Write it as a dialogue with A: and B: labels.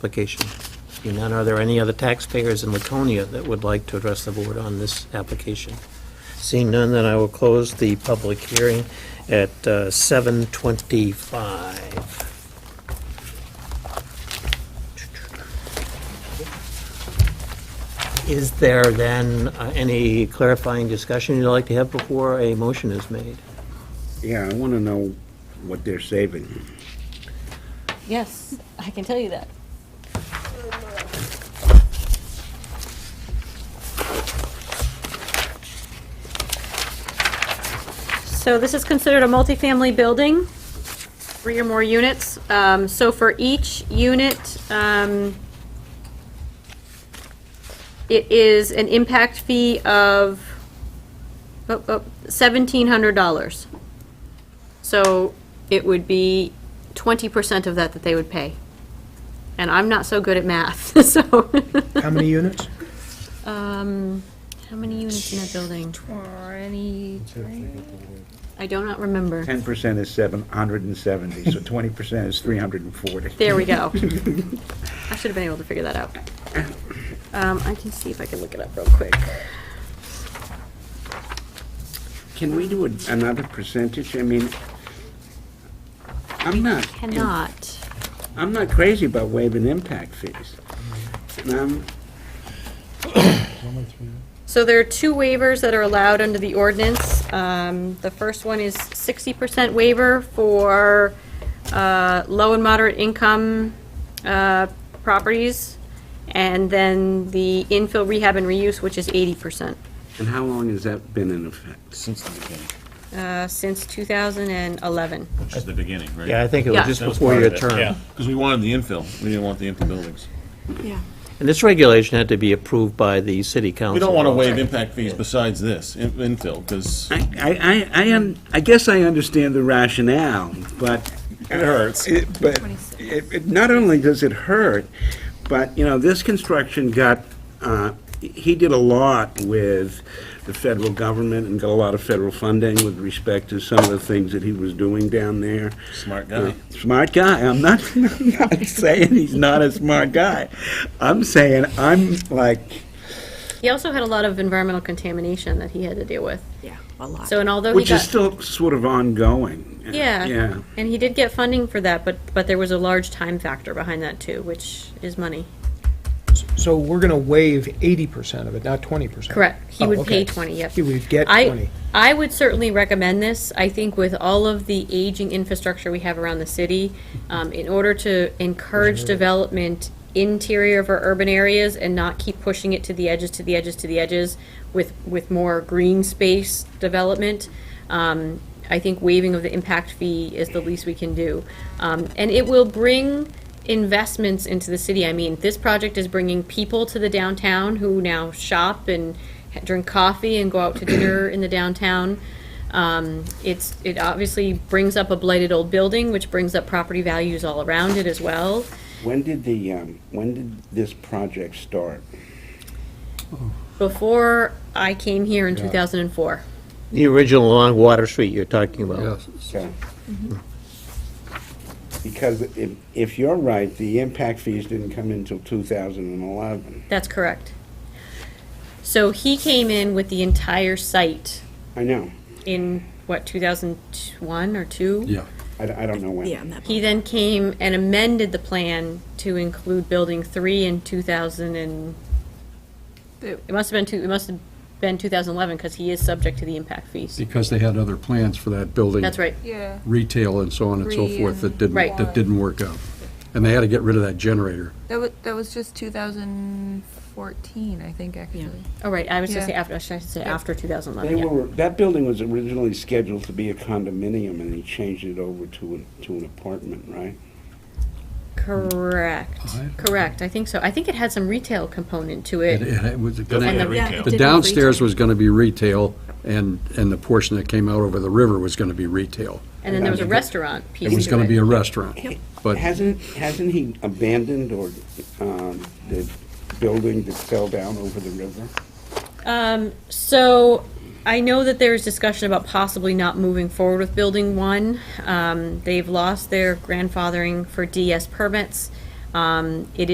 A: application. Seeing none, are there any other taxpayers in Laconia that would like to address the board on this application? Seeing none, then I will close the public hearing at uh, 7:25. Is there then uh, any clarifying discussion you'd like to have before a motion is made?
B: Yeah, I want to know what they're saving.
C: Yes, I can tell you that. So this is considered a multifamily building, three or more units. Um, So for each unit, um, it is an impact fee of oh, oh, $1,700. So it would be twenty percent of that that they would pay. And I'm not so good at math, so.
D: How many units?
C: Um, how many units in that building?
E: Twenty-three.
C: I do not remember.
B: 10% is 770, so 20% is 340.
C: There we go. I should have been able to figure that out. Um, I can see if I can look it up real quick.
B: Can we do a- another percentage? I mean, I'm not,
C: Cannot.
B: I'm not crazy about waiving impact fees. Um, And I'm-
C: So there are two waivers that are allowed under the ordinance. Um, The first one is 60% waiver for uh, low and moderate income uh, properties, and then the infill rehab and reuse, which is 80%,
B: And how long has that been in effect?
E: Since the beginning,
C: uh, since 2011.
E: which is the beginning, right?
A: Yeah, I think it was
C: Yeah.
A: just
E: That was
A: before
E: part
A: your
E: of it,
A: term.
E: Yeah, because we wanted the infill, we didn't want the empty buildings.
A: And this regulation had to be approved by the city council.
E: We don't want to waive impact fees besides this, in- infill, because
B: I, I, I, I un- I guess I understand the rationale, but
E: it hurts.
B: It- But it, it- not only does it hurt, but, you know, this construction got, uh, he did a lot with the federal government and got a lot of federal funding with respect to some of the things that he was doing down there.
E: Smart guy.
B: Smart guy. I'm not, I'm not saying he's not a smart guy. I'm saying I'm like,
C: He also had a lot of environmental contamination that he had to deal with.
F: Yeah, a lot.
C: So and although he
B: which is
C: got,
B: still sort of ongoing. Yeah.
C: yeah, and he did get funding for that, but, but there was a large time factor behind that too, which is money.
D: So we're going to waive 80% of it, not 20%?
C: Correct. He
D: Oh,
C: would pay
D: okay.
C: 20, yep.
D: He would get
C: I,
D: 20.
C: I would certainly recommend this. I think with all of the aging infrastructure we have around the city, um, in order to encourage development interior of our urban areas and not keep pushing it to the edges, to the edges, to the edges with, with more green space development, um, I think waiving of the impact fee is the least we can do. Um, and it will bring investments into the city. I mean, this project is bringing people to the downtown who now shop and ha- drink coffee and go out to dinner in the downtown. Um, it's it obviously brings up a blighted old building, which brings up property values all around it as well.
B: When did the, um, when did this project start?
C: Before I came here in 2004,
A: The original along Water Street you're talking about.
B: Okay. Because if, if you're right, the impact fees didn't come in until 2011.
C: that's correct. So he came in with the entire site
B: I know,
C: in what 2001 or two.
B: I, d- I don't know when.
F: Yeah, on that
C: He then came and amended the plan to include building three in two thousand and, it must have been two, it must have been two thousand eleven, because he is subject to the impact fees.
G: Because they had other plans for that building.
C: That's right.
H: Yeah.
G: Retail and so on and so
H: Three
G: forth that didn't,
C: Right.
G: that didn't work out. And they had to get rid of that generator.
H: That was, that was just 2014, I think, actually.
C: Oh, right, I was gonna say
H: Yeah.
C: after, I should say after two thousand
B: They
C: eleven, yeah.
B: were, that building was originally scheduled to be a condominium, and he changed it over to, an- to an apartment, right?
C: Correct,
G: I-
C: correct, I think so. I think it had some retail component to
G: It-
C: it.
G: it was
E: Doesn't
G: gonna-
E: have
F: Yeah,
E: retail.
F: it
G: The
F: did.
G: downstairs
F: retail.
G: was going to be retail, and, and the portion that came out over the river was going to be retail.
C: And then there was a restaurant piece
G: It was
C: to
G: going to
C: it.
G: be a restaurant. But
B: Hasn't, hasn't he abandoned or, um, the building that fell down over the river?
C: So I know that there is discussion about possibly not moving forward with building one. Um, they've lost their grandfathering for DS permits. Um, it